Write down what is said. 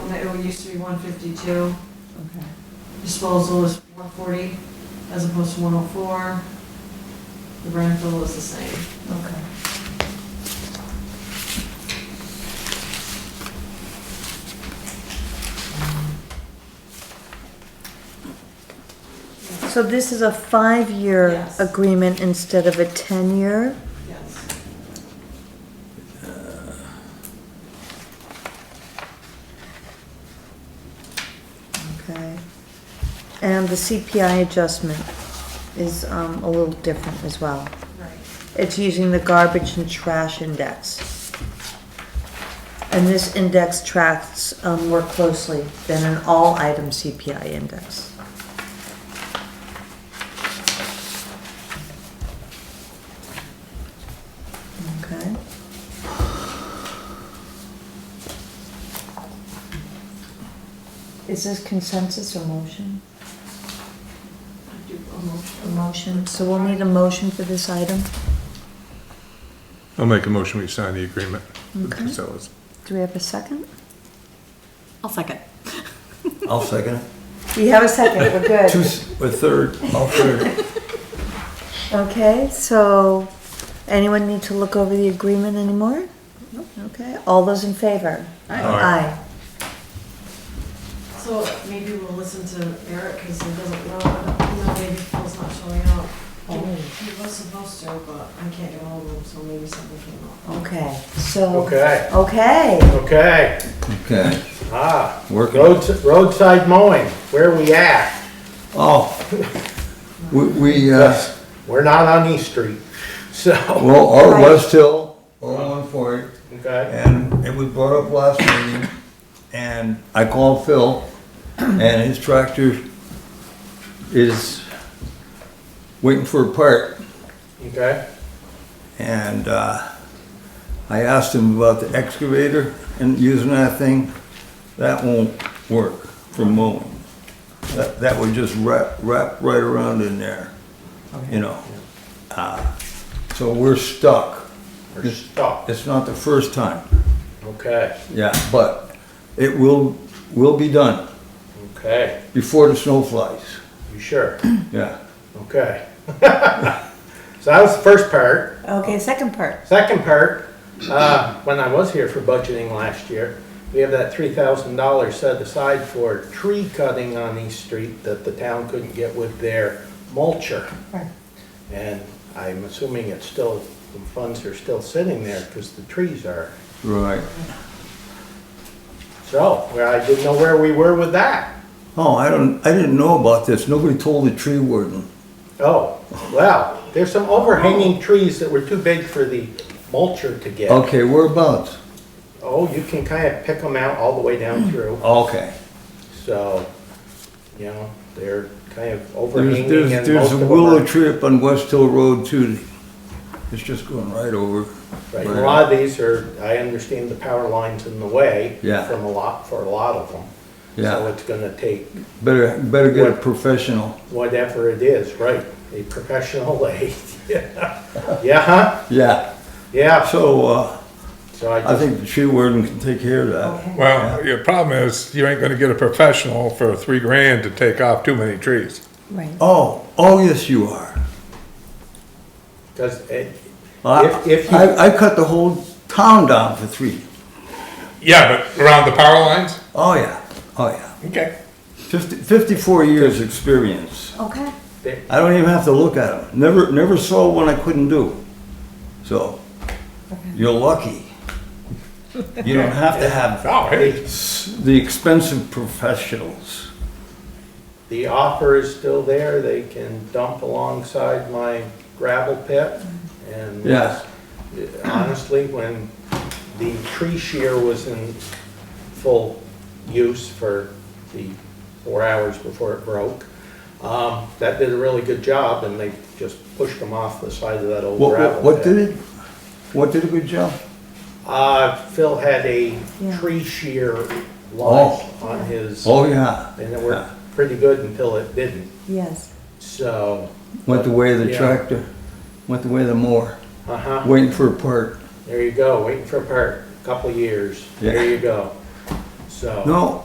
that it used to be one fifty-two, Okay. disposal is one forty as opposed to one oh four. The rental is the same. Okay. So this is a five-year Yes. agreement instead of a 10-year? Yes. Okay. And the CPI adjustment is um, a little different as well. Right. It's using the garbage and trash index. And this index tracks um, more closely than an all-item CPI index. Okay. Is this consensus or motion? I do a motion. A motion, so we'll need a motion for this item. I'll make a motion, we sign the agreement with Okay. Casellas. Do we have a second? I'll second. I'll second it. We have a second, we're good. Two, s- a third, I'll third it. Okay, so anyone need to look over the agreement anymore? Okay, all those in favor? Aye. So maybe we'll listen to Eric because he doesn't know, you know, maybe Phil's not showing up. Oh. He he was supposed to, but I can't get hold of him, so maybe something came up. Aye. Okay, so, Okay, okay, okay, Okay, ah, working. roads- roadside mowing, where we at? Oh, we, we, uh, We're not on East Street, so, well, our West Hill, oh one forty, okay, and it was brought up last meeting, and I called Phil, and his tractor is waiting for a part, okay, and, uh, I asked him about the excavator and using that thing, that won't work for mowing. That, that would just wrap, wrap right around in there, you know? Uh, So we're stuck. we're stuck, It's not the first time, okay, yeah, but it will, will be done okay, before the snow flies, you sure? yeah. Okay. So that was the first part. okay, second part. Second part, uh, when I was here for budgeting last year, we have that three thousand dollars set aside for tree cutting on East Street that the town couldn't get with their mulcher. Right. And I'm assuming it's still, the funds are still sitting there because the trees are. Right. So, well, I didn't know where we were with that. Oh, I don't, I didn't know about this, nobody told the tree warden. Oh, well, there's some overhanging trees that were too big for the mulcher to get. Okay, whereabouts? Oh, you can kind of pick them out all the way down through. Okay. So, you know, they're kind of There's, overhanging there's, and most there's a of them willow are- tree up on West Hill Road too. It's just going right over. Right, and a lot of these are, I understand the power lines in the way. Yeah. From a lot, for a lot of them. So Yeah, it's gonna take better, better get a What- professional. whatever it is, right, a professional aid. Yeah, huh? Yeah, yeah, so, uh, so I I just, think the tree warden can take care of that. Well, your problem is you ain't gonna get a professional for three grand to take off too many trees. Right. Oh, oh, yes, you are. because it, I, If- if you- I I cut the whole town down for three. Yeah, but around the power lines? Oh, yeah, oh, yeah. Okay. Fifty, fifty-four years experience. Okay. they- I don't even have to look at them. Never, never saw one I couldn't do. So, you're lucky. You don't have to have Oh, hey, s- the expensive professionals. the offer is still there, they can dump alongside my gravel pit and. Yeah. honestly, when the tree shear was in full use for the four hours before it broke, um, that did a really good job, and they just pushed them off the side of that old What, gravel what, pit. what did it, what did a good job? Uh, Phil had a Yeah. tree shear line Oh. on his, and Oh, yeah. it Yeah. worked pretty good until it didn't, Yes. so, Went the way of the Yeah. tractor, went the way of the mower, uh-huh. waiting for a part. There you go, waiting for a part, couple years, Yeah. there you go, so. No,